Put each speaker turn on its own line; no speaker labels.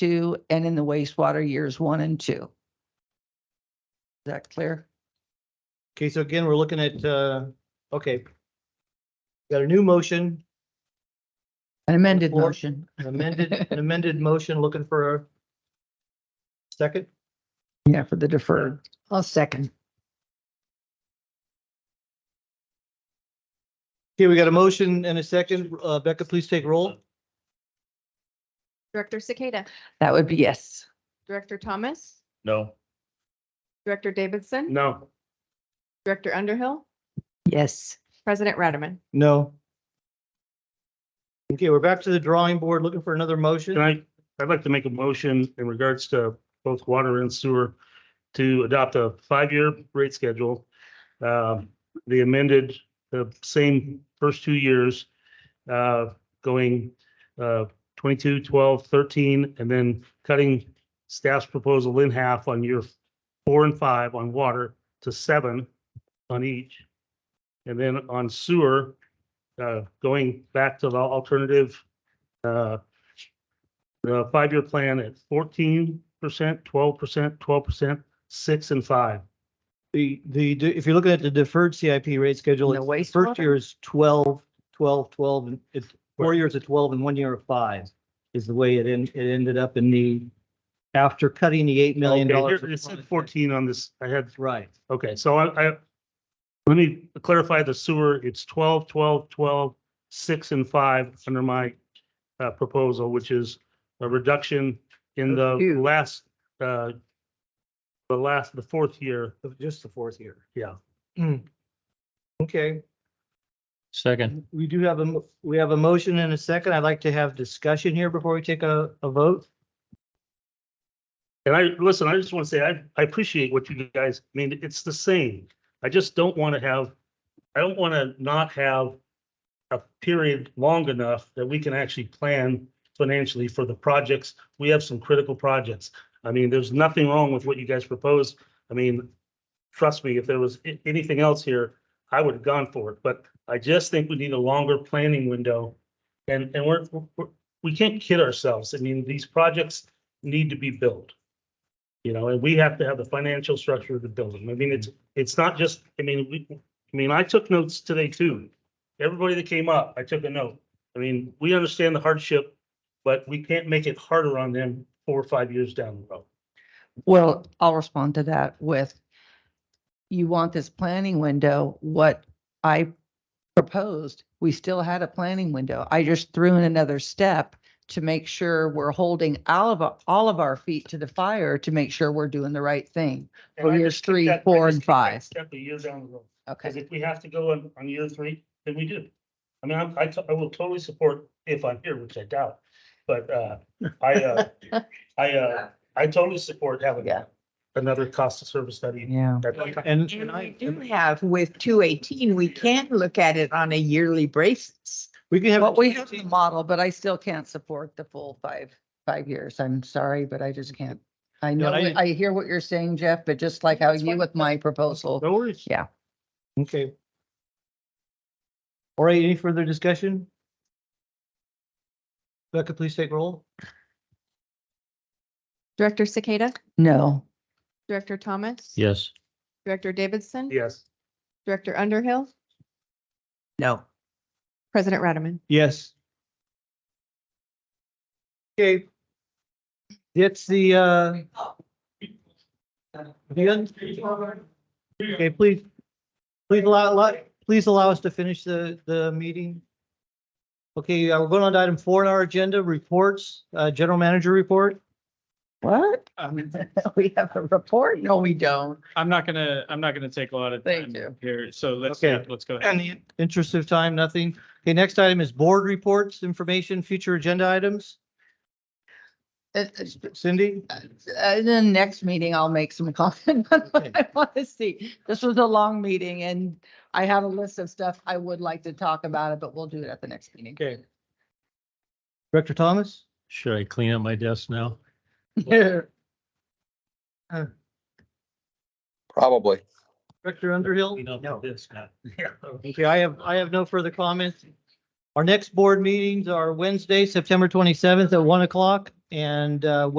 two and in the wastewater years one and two. Is that clear?
Okay, so again, we're looking at, uh, okay. Got a new motion,
An amended
Or-
motion.
an amended, an amended motion, looking for a second.
Yeah, for the deferred. I'll second.
Okay, we got a motion and a second. Uh, Becca, please take roll.
Director Cicada,
That would be yes.
Director Thomas,
No.
Director Davidson,
No.
Director Underhill,
Yes.
President Radaman.
No. Okay, we're back to the drawing board, looking for another motion.
Can I, I'd like to make a motion in regards to both water and sewer to adopt a five-year rate schedule. Um, The amended, the same first two years, uh, going uh, 22, 12, 13, and then cutting staff's proposal in half on year four and five on water to seven on each. And then on sewer, uh, going back to the alternative uh, the five-year plan at fourteen percent, twelve percent, twelve percent, six and five.
The, the, if you're looking at the deferred CIP rate schedule,
And the
it's- the first
wastewater.
year is 12, 12, 12, and it's four years of twelve and one year of five is the way it en- it ended up in the, after cutting the eight million
Okay,
dollars.
here- It said fourteen on this, I had,
Right.
okay, so I, I, let me clarify the sewer, it's 12, 12, 12, six and five under my uh, proposal, which is a reduction in the
Those two.
last, uh, the last, the fourth year,
of Just the fourth year.
yeah. Hmm.
Okay,
Second,
we do have a, mo- we have a motion and a second. I'd like to have discussion here before we take a, a vote.
And I, listen, I just want to say, I, I appreciate what you guys, I mean, it's the same. I just don't want to have, I don't want to not have a period long enough that we can actually plan financially for the projects. We have some critical projects. I mean, there's nothing wrong with what you guys proposed. I mean, trust me, if there was a- anything else here, I would have gone for it, but I just think we need a longer planning window. And, and we're, we're, we can't kid ourselves. I mean, these projects need to be built. You know, and we have to have the financial structure to build them. I mean, it's, it's not just, I mean, we, I mean, I took notes today too. Everybody that came up, I took a note. I mean, we understand the hardship, but we can't make it harder on them four or five years down the road.
Well, I'll respond to that with, you want this planning window, what I proposed, we still had a planning window. I just threw in another step to make sure we're holding all of, our- all of our feet to the fire to make sure we're doing the right thing.
And
For
I
years
just keep
three,
that- I
four,
just
and
keep that
five.
Step a year down the road.
Okay.
Because if we have to go on, on year three, then we do. I mean, I'm- I, t- I will totally support if I'm here, which I doubt, but, uh, I, uh, I, uh, I totally support having
Yeah.
another cost of service study.
Yeah.
That- that-
And, and
And we
I,
do have with two eighteen, we can look at it on a yearly basis.
we can have.
Well, we have the model, but I still can't support the full five, five years. I'm sorry, but I just can't. I know,
I-
I hear what you're saying, Jeff, but just like how you with my proposal,
No worries.
Okay. All right, any further discussion? Becca, please take roll.
Director Cicada,
no.
Director Thomas.
yes.
Director Davidson.
Yes.
Director Underhill,
No.
President Radaman.
Yes. Okay. It's the, uh. the un- Okay, please, please allow, allow- please allow us to finish the, the meeting. Okay, uh, we're going on to item four on our agenda, reports, uh, general manager report.
What? We have a report? No, we don't.
I'm not gonna, I'm not gonna take a lot of
Thank
time
you.
here, so let's,
Okay.
let's go
In
ahead.
the interest of time, nothing. Okay, next item is board reports, information, future agenda items. Cindy?
In Uh, the next meeting, I'll make some comment on what I want to see. This was a long meeting and I have a list of stuff I would like to talk about it, but we'll do it at the next meeting.
Okay. Director Thomas?
Should I clean up my desk now?
Probably.
Director Underhill?
Clean up my desk now.
Okay, I have, I have no further comments. Our next board meetings are Wednesday, September twenty-seventh at one o'clock. and uh,